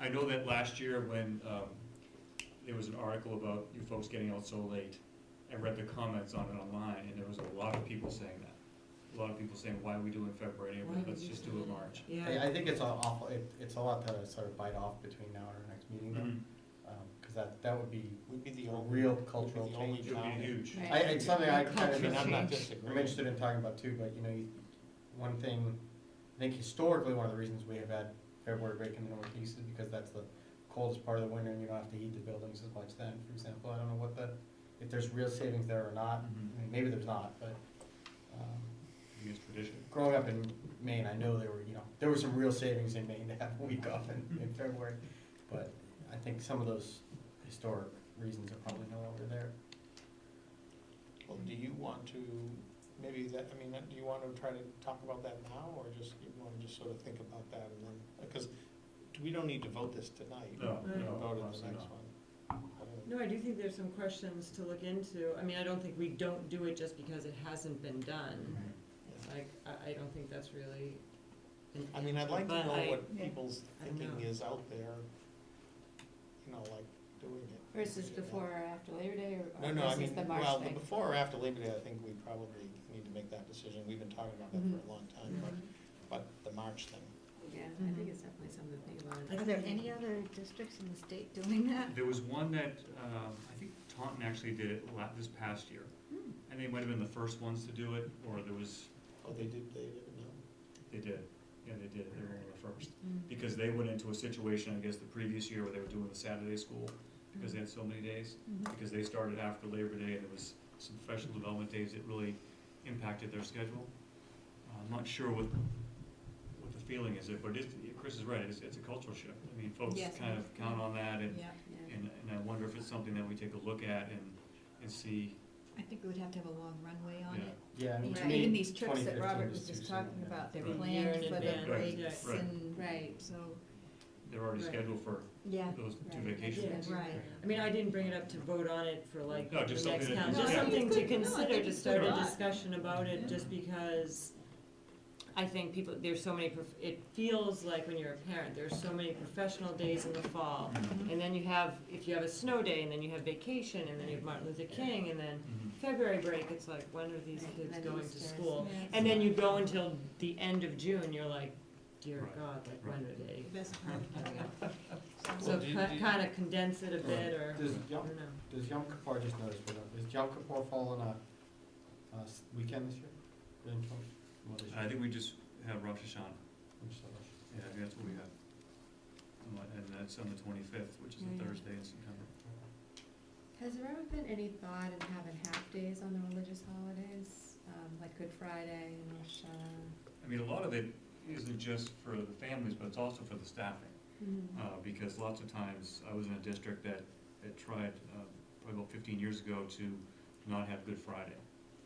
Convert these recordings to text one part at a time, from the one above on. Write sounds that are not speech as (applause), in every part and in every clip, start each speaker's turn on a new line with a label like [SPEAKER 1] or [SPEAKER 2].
[SPEAKER 1] I know that last year when, um, there was an article about you folks getting out so late, I read the comments on it online, and there was a lot of people saying that. A lot of people saying, why are we doing February, and
[SPEAKER 2] Why
[SPEAKER 1] April,
[SPEAKER 2] would
[SPEAKER 1] let's
[SPEAKER 2] you
[SPEAKER 1] just
[SPEAKER 2] do
[SPEAKER 1] do it
[SPEAKER 2] that?"
[SPEAKER 1] March.
[SPEAKER 2] Yeah,
[SPEAKER 3] I, I think it's a awful, it, it's a lot to sort of bite off between now and our next meeting, though,
[SPEAKER 1] Mhm.
[SPEAKER 3] Um 'cause cause that, that would be
[SPEAKER 4] We'd be the
[SPEAKER 3] a
[SPEAKER 4] only,
[SPEAKER 3] real
[SPEAKER 4] we'd
[SPEAKER 3] cultural
[SPEAKER 4] be Mm-hmm. the only
[SPEAKER 3] change.
[SPEAKER 1] It would
[SPEAKER 4] town.
[SPEAKER 1] be huge.
[SPEAKER 2] Right.
[SPEAKER 3] I, it's something I kind
[SPEAKER 4] I
[SPEAKER 3] of,
[SPEAKER 4] mean, I'm not
[SPEAKER 2] Change.
[SPEAKER 4] disagreeing.
[SPEAKER 3] I'm interested in talking about too, but you know, you- one thing, I think historically, one of the reasons we have had February break in the Northeast is because that's the coldest part of the winter and you don't have to heat the buildings as much then, for example, I don't know what the, if there's real savings there or not,
[SPEAKER 4] Mm-hmm.
[SPEAKER 1] Mhm.
[SPEAKER 3] I mean, maybe there's not, but, um,
[SPEAKER 1] I mean, It's tradition.
[SPEAKER 3] growing up in Maine, I know there were, you know, there were some real savings in Maine to have a (laughs) week off in, in February. But I think some of those historic reasons are probably no longer there.
[SPEAKER 4] Well, do you want to, maybe that, I mean, do you want to try to talk about that now, or just, you want to just sort of think about that and then, because we don't need to vote this tonight.
[SPEAKER 1] No,
[SPEAKER 4] We can
[SPEAKER 1] no,
[SPEAKER 4] Vote on the
[SPEAKER 1] honestly
[SPEAKER 4] next
[SPEAKER 1] not.
[SPEAKER 4] one. I don't-
[SPEAKER 2] no, I do think there's some questions to look into. I mean, I don't think we don't do it just because it hasn't been done.
[SPEAKER 3] Mm-hmm.
[SPEAKER 2] Like, I, I don't think that's really an
[SPEAKER 4] I mean, I'd
[SPEAKER 2] answer,
[SPEAKER 4] like to
[SPEAKER 2] but
[SPEAKER 4] know
[SPEAKER 2] I-
[SPEAKER 4] what people's
[SPEAKER 2] I don't
[SPEAKER 4] thinking
[SPEAKER 2] know.
[SPEAKER 4] is out there, you know, like doing it.
[SPEAKER 5] Versus
[SPEAKER 4] You know?
[SPEAKER 5] before or after Labor Day or-
[SPEAKER 4] No,
[SPEAKER 5] or
[SPEAKER 4] no, I
[SPEAKER 5] versus
[SPEAKER 4] mean,
[SPEAKER 5] the
[SPEAKER 4] well,
[SPEAKER 5] March
[SPEAKER 4] the
[SPEAKER 5] thing?
[SPEAKER 4] before or after Labor Day, I think we probably need to make that decision. We've been talking about that for a long time, but,
[SPEAKER 5] Mhm.
[SPEAKER 4] but the March thing.
[SPEAKER 5] Yeah, I
[SPEAKER 2] Mhm.
[SPEAKER 5] think it's definitely something to think
[SPEAKER 2] I
[SPEAKER 5] about.
[SPEAKER 6] Are there any other districts in the state doing that?
[SPEAKER 1] There was one that, um, I think Taunton actually did it la- this past year.
[SPEAKER 6] Hmm.
[SPEAKER 1] And they might have been the first ones to do it, or there was,
[SPEAKER 4] Oh, they did, they did, no?
[SPEAKER 1] they did, yeah, they did, they were one of the first.
[SPEAKER 5] Mm.
[SPEAKER 1] Because they went into a situation, I guess, the previous year where they were doing the Saturday school, because they had so many days.
[SPEAKER 6] Mhm.
[SPEAKER 1] Because they started after Labor Day, and there was some professional development days that really impacted their schedule. Uh, I'm not sure what, what the feeling is, but it, is- Chris is right, it's, it's a cultural shift. I mean, folks
[SPEAKER 5] Yes.
[SPEAKER 1] kind of count on that, and,
[SPEAKER 5] Yeah, yeah.
[SPEAKER 1] and, and I wonder if it's something that we take a look at and, and see,
[SPEAKER 6] I think we would have to have a long runway on
[SPEAKER 1] Yeah.
[SPEAKER 6] it.
[SPEAKER 3] Yeah, I mean, to
[SPEAKER 6] Even- Even
[SPEAKER 3] me,
[SPEAKER 6] these trips
[SPEAKER 3] twenty
[SPEAKER 6] that
[SPEAKER 3] fifteen
[SPEAKER 6] Robert
[SPEAKER 3] is
[SPEAKER 6] was
[SPEAKER 3] too
[SPEAKER 6] just
[SPEAKER 3] soon.
[SPEAKER 6] talking about, they're
[SPEAKER 1] Right.
[SPEAKER 2] Year
[SPEAKER 6] planned
[SPEAKER 2] in
[SPEAKER 6] for the
[SPEAKER 2] advance,
[SPEAKER 6] breaks
[SPEAKER 1] right.
[SPEAKER 6] and,
[SPEAKER 5] Right.
[SPEAKER 6] so,
[SPEAKER 1] they're already
[SPEAKER 2] Right.
[SPEAKER 1] scheduled for
[SPEAKER 6] yeah,
[SPEAKER 1] those two
[SPEAKER 5] Right.
[SPEAKER 1] vacation
[SPEAKER 2] Yeah.
[SPEAKER 1] days.
[SPEAKER 6] right.
[SPEAKER 2] I mean, I didn't bring it up to vote on it for like the
[SPEAKER 1] No, just
[SPEAKER 2] next
[SPEAKER 1] something that
[SPEAKER 2] count,
[SPEAKER 1] you-
[SPEAKER 2] just
[SPEAKER 1] Yeah.
[SPEAKER 2] something
[SPEAKER 6] No, I
[SPEAKER 2] to
[SPEAKER 6] think
[SPEAKER 2] consider, to
[SPEAKER 6] it's
[SPEAKER 2] start a
[SPEAKER 1] good.
[SPEAKER 2] discussion about it, just because I think people, there's so many, prof- it feels like when you're a parent, there's so many professional days in the fall.
[SPEAKER 1] Mhm.
[SPEAKER 2] And then you have, if you have a snow day, and then you have vacation, and then you have Martin Luther King, and then
[SPEAKER 1] Mhm.
[SPEAKER 2] February break, it's like, when are these
[SPEAKER 5] Right, and
[SPEAKER 2] kids
[SPEAKER 5] then
[SPEAKER 2] going to
[SPEAKER 5] Easter is-
[SPEAKER 2] school?
[SPEAKER 6] Yeah.
[SPEAKER 2] And then you go until the end of June, you're like, dear
[SPEAKER 1] Right,
[SPEAKER 2] God, like, when are they?
[SPEAKER 6] Best part of doing it.
[SPEAKER 2] (laughs) So
[SPEAKER 4] do you- do you-
[SPEAKER 2] kind of condense it a bit, or,
[SPEAKER 3] Does
[SPEAKER 2] I
[SPEAKER 3] Yom,
[SPEAKER 2] don't know.
[SPEAKER 3] does Yom Kippur, just notice, we're not- does Yom Kippur fall on a, uh, s- weekend this year? Or in twenty- what is it?
[SPEAKER 1] I think we just have Rosh Hashanah.
[SPEAKER 3] I'm just like-
[SPEAKER 1] Yeah, I think that's what we have. And what- And that's on the twenty-fifth, which is a
[SPEAKER 5] Right.
[SPEAKER 1] Thursday in September.
[SPEAKER 5] Has there ever been any thought in having half-days on the religious holidays, um, like Good Friday and Rosh Hashanah?
[SPEAKER 1] I mean, a lot of it isn't just for the families, but it's also for the staffing.
[SPEAKER 5] Mhm.
[SPEAKER 1] Uh, because lots of times, I was in a district that, that tried, uh, probably about fifteen years ago to not have Good Friday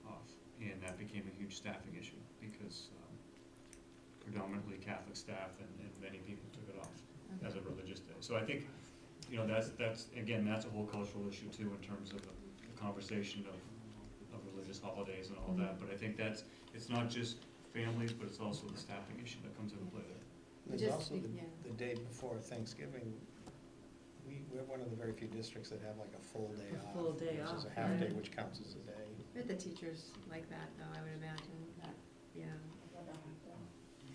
[SPEAKER 1] off. And that became a huge staffing issue because, um, predominantly Catholic staff and, and many people took it off.
[SPEAKER 5] Okay.
[SPEAKER 1] as a religious day. So I think, you know, that's, that's, again, that's a whole cultural issue too in terms of the the conversation of, of religious holidays and all that. But I think that's, it's not just families, but it's also the staffing issue that comes into play there.
[SPEAKER 4] There's
[SPEAKER 5] Just
[SPEAKER 4] also
[SPEAKER 5] be-
[SPEAKER 4] the,
[SPEAKER 5] yeah.
[SPEAKER 4] the day before Thanksgiving, we, we're one of the very few districts that have like a full day
[SPEAKER 2] A
[SPEAKER 4] off.
[SPEAKER 2] full day
[SPEAKER 4] Which is
[SPEAKER 2] off,
[SPEAKER 4] a half day,
[SPEAKER 5] yeah.
[SPEAKER 4] which counts as a day.
[SPEAKER 5] Bet the teachers like that, though, I would imagine, that, yeah.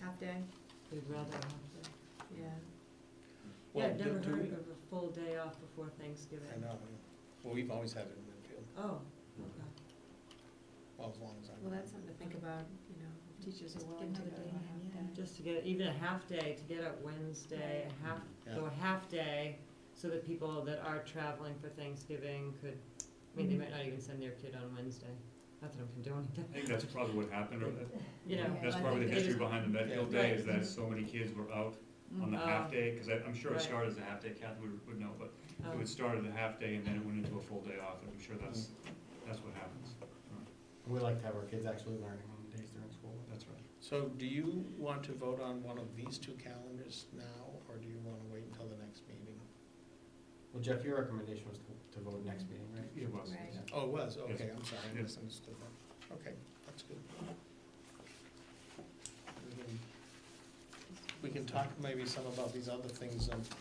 [SPEAKER 5] Half-day,
[SPEAKER 2] we'd rather have the.
[SPEAKER 5] yeah.
[SPEAKER 2] Yeah,
[SPEAKER 4] Well,
[SPEAKER 2] I've
[SPEAKER 4] do-
[SPEAKER 2] never
[SPEAKER 4] do
[SPEAKER 2] heard
[SPEAKER 4] we-
[SPEAKER 2] of a full day off before Thanksgiving.
[SPEAKER 4] I know, yeah. well, we've always had it in Medfield,
[SPEAKER 2] Oh,
[SPEAKER 4] well, as long as I
[SPEAKER 5] Well,
[SPEAKER 4] remember.
[SPEAKER 5] that's something to think about, you know, if teachers are
[SPEAKER 6] Just
[SPEAKER 5] willing to
[SPEAKER 6] give
[SPEAKER 5] go
[SPEAKER 6] another day
[SPEAKER 5] to a
[SPEAKER 6] in,
[SPEAKER 5] half-day.
[SPEAKER 6] yeah.
[SPEAKER 2] just to get, even a half day, to get up Wednesday, a half,
[SPEAKER 4] Yeah.
[SPEAKER 2] so a half day, so that people that are traveling for Thanksgiving could, I mean, they might not even send their kid on Wednesday. Not that I'm condoning
[SPEAKER 1] I
[SPEAKER 2] that,
[SPEAKER 1] think that's probably what happened, or that-
[SPEAKER 2] you know.
[SPEAKER 1] that's
[SPEAKER 5] I
[SPEAKER 1] probably the
[SPEAKER 2] think it
[SPEAKER 1] history
[SPEAKER 2] is-
[SPEAKER 1] behind the Medfield
[SPEAKER 2] Yeah.
[SPEAKER 1] Day, is that so many kids were out on the
[SPEAKER 2] Mm.
[SPEAKER 1] half day. Because I'm sure it
[SPEAKER 2] Right.
[SPEAKER 1] started as a half day, Kathy would, would know, but it
[SPEAKER 2] um,
[SPEAKER 1] would start as a half day and then it went into a full day off, and I'm sure that's,
[SPEAKER 2] Mm.
[SPEAKER 1] that's what happens.
[SPEAKER 3] We like to have our kids actually learning on the days they're in school.
[SPEAKER 1] That's right.
[SPEAKER 4] So do you want to vote on one of these two calendars now, or do you wanna wait until the next meeting?
[SPEAKER 3] Well, Jeff, your recommendation was to, to vote next meeting, right?
[SPEAKER 1] It was.
[SPEAKER 5] Right.
[SPEAKER 3] Yeah.
[SPEAKER 4] Oh, it was,
[SPEAKER 1] Yes.
[SPEAKER 4] okay, I'm sorry, I
[SPEAKER 1] Yes.
[SPEAKER 4] misunderstood that, okay, that's good. We can- We can talk maybe some about these other things, um,